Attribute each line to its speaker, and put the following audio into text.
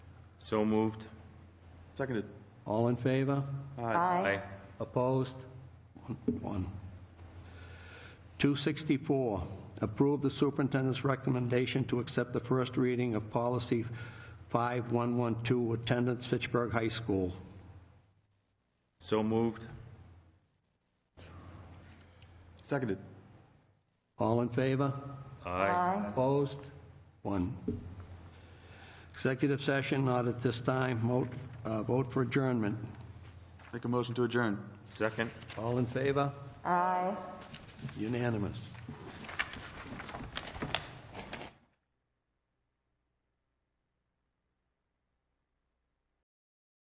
Speaker 1: So moved.
Speaker 2: Seconded.
Speaker 3: All in favor?
Speaker 1: Aye.
Speaker 3: Opposed? One. 264, approve the superintendent's recommendation to accept the first reading of policy 5112, attendance Fitchburg High School.
Speaker 1: So moved.
Speaker 2: Seconded.
Speaker 3: All in favor?
Speaker 1: Aye.
Speaker 3: Opposed? One. Executive session, not at this time. Vote, uh, vote for adjournment.
Speaker 2: Make a motion to adjourn.
Speaker 1: Second.
Speaker 3: All in favor? Aye. Unanimous.